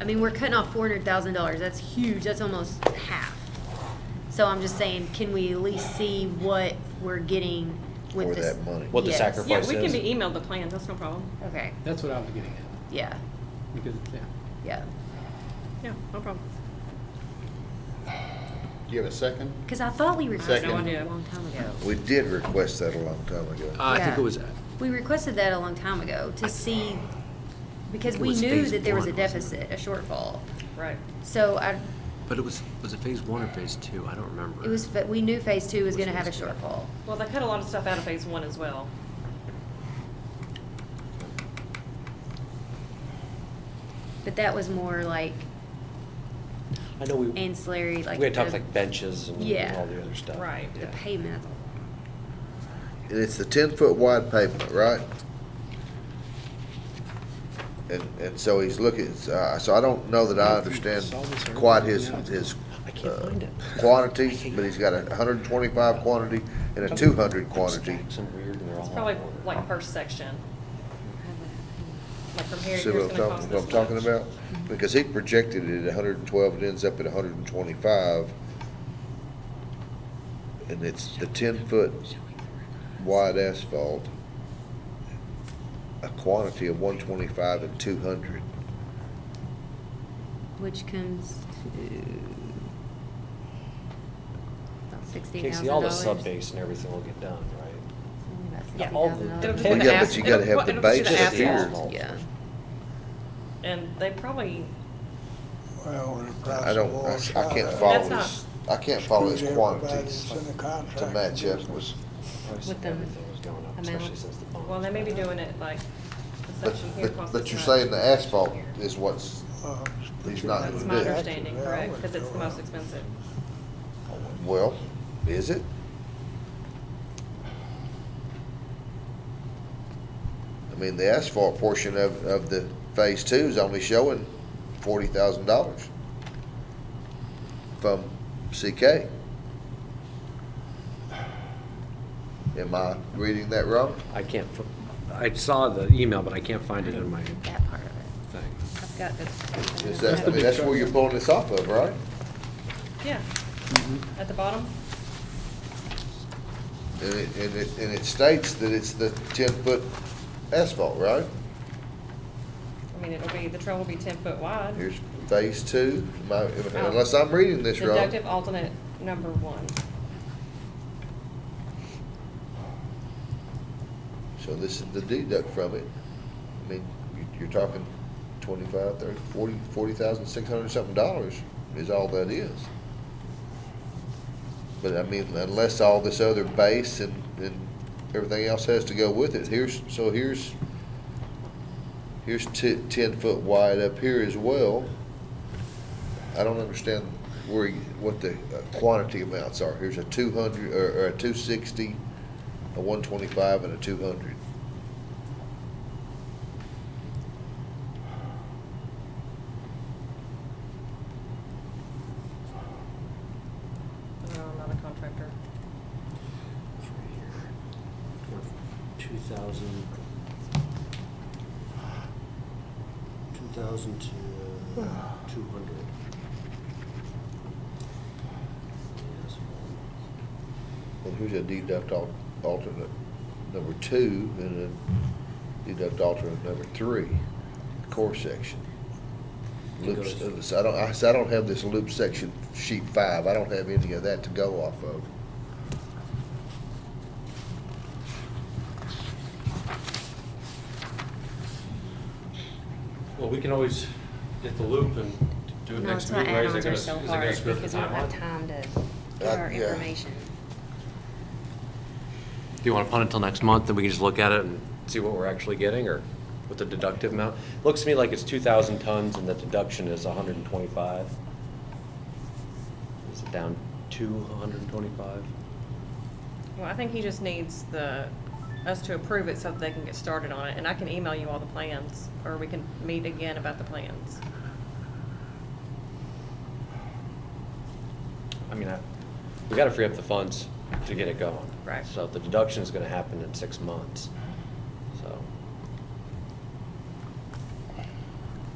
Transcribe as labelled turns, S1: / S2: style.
S1: I mean, we're cutting off four hundred thousand dollars. That's huge. That's almost half. So I'm just saying, can we at least see what we're getting with
S2: For
S1: this?
S2: that money.
S3: What the
S1: Yes.
S3: sacrifice-
S4: Yeah, we can
S3: is-
S4: be emailed the plans, that's no problem.
S1: Okay.
S5: That's what I was getting at,
S1: Yeah.
S5: because, yeah.
S1: Yeah.
S4: Yeah, no problem.
S6: Do you have a second?
S1: Because I thought we requested
S6: Second.
S1: that a long time ago.
S2: We did request that a long time ago.
S1: I
S3: I
S1: think Yeah.
S3: think
S1: it
S3: it
S1: was-
S3: was,
S1: We requested that a long time ago to see, because
S3: It
S1: we
S3: was
S1: knew
S3: phase
S1: that there was a
S3: one, wasn't
S1: deficit, a shortfall.
S4: Right.
S1: So I,
S3: but it was, was it phase one or phase two? I don't remember.
S1: it was, but we knew phase two was
S3: Which
S1: gonna have a
S3: phase two?
S1: shortfall.
S4: Well, they cut a lot of stuff out of phase one as well.
S1: But that was more like
S3: I know we, we
S1: ancillary, like.
S3: had talked
S1: the-
S3: like benches and
S1: Yeah.
S3: all the other stuff.
S4: Right.
S1: The
S3: Yeah.
S1: pavement.
S2: And it's the ten-foot wide pavement, right? And, and so he's looking, uh, so I don't know that I understand quite his, his
S3: I can't
S2: uh,
S3: find it.
S2: quantities, but he's got a hundred and twenty-five quantity and a two hundred quantity.
S3: Stacks and weird and they're all
S4: It's
S3: out
S4: probably
S3: of order.
S4: like first section, like from here to
S2: See
S4: here
S2: what
S4: is
S2: I'm
S4: gonna cost
S2: talking,
S4: this
S2: what I'm talking
S4: much.
S2: about? Because he projected it at hundred and twelve, it ends up at hundred and twenty-five. And it's the ten-foot wide asphalt, a quantity of one twenty-five and two hundred.
S1: Which comes to about sixteen
S3: Okay,
S1: thousand
S3: see, all the
S1: dollars.
S3: sub base and everything will get done, right?
S4: Yeah.
S3: all the-
S4: It'll just
S3: Well,
S4: be
S3: yeah,
S4: the
S3: but
S4: as-
S2: you gotta
S4: it'll-
S2: have the
S4: it'll just be
S2: base
S3: Just the
S2: here.
S4: asphalt.
S3: asphalt.
S1: Yeah.
S4: And they probably,
S7: Well, and the price
S2: I
S7: of
S2: don't,
S7: oil
S2: I
S7: shot
S2: I can't
S7: up.
S2: follow
S4: That's not-
S2: his, I can't follow his
S7: Everybody
S2: quantities
S7: that's in the
S2: to
S7: contract
S2: match up
S7: business.
S2: with,
S3: Price
S1: With
S3: of
S1: the
S3: everything was going up, especially
S1: amount.
S3: since the bond.
S4: well, they may be doing it like the
S2: but,
S4: section here
S2: but,
S4: costs
S2: but
S4: this
S2: you're
S4: much.
S2: saying the asphalt is what's,
S7: Uh,
S2: He's not
S4: That's
S2: gonna
S4: my
S2: do it.
S4: understanding,
S7: Yeah, I
S4: correct,
S7: would Mm-hmm.
S4: because it's
S7: go
S4: the most
S7: up.
S4: expensive.
S2: well, is it? I mean, the asphalt portion of, of the phase two is only showing forty thousand dollars from CK. Am I reading that wrong?
S3: I can't, fi- I saw the email, but I can't find it in my
S1: That part of it.
S3: thing.
S1: I've got the.
S2: Is that, I mean, that's where you're pulling this off of, right?
S4: Yeah, at the bottom,
S2: And it, and it, and it states that it's the ten-foot asphalt, right?
S4: I mean, it'll be, the trail will be ten foot wide.
S2: Here's phase two, Am I- unless I'm reading this wrong.
S4: Deductive alternate number one.
S2: So this is the deduct from it. I mean, you- you're talking twenty-five, thirty, forty, forty thousand, six hundred and something dollars is all that is. But I mean, unless all this other base and, and everything else has to go with it, here's, so here's, here's ti- ten foot wide up here as well. I don't understand where, you- what the uh, quantity amounts are. Here's a two hundred, or, or a two sixty, a one twenty-five, and a two hundred.
S4: No, I'm not a contractor.
S3: Two thousand. Two thousand to two hundred.
S2: Well, here's a deduct al- alternate number two and a deduct alternate number three, core section. Loops, uh,
S3: It goes-
S2: so I don't, I, so I don't have this loop section sheet five, I don't have any of that to go off of.
S8: Well, we can always get the loop and do it
S1: No,
S8: next
S1: it's my
S8: meeting, right? Is it
S1: add-ons
S8: gonna,
S1: are
S8: is it
S1: so
S8: gonna screw
S1: hard
S8: up the
S1: because we don't have
S8: timeline?
S1: time to get
S2: Uh,
S1: our
S2: yeah.
S1: information.
S3: Do you wanna punt until next month, then we can just look at it and see what we're actually getting, or what the deductive amount? Looks to me like it's two thousand tons and the deduction is hundred and twenty-five. Is it down to hundred and twenty-five?
S4: Well, I think he just needs the, us to approve it so that they can get started on it, and I can email you all the plans, or we can meet again about the plans.
S3: I mean, I, we gotta free up the funds to get it going.
S4: Right.
S3: So the deduction is gonna happen in six months.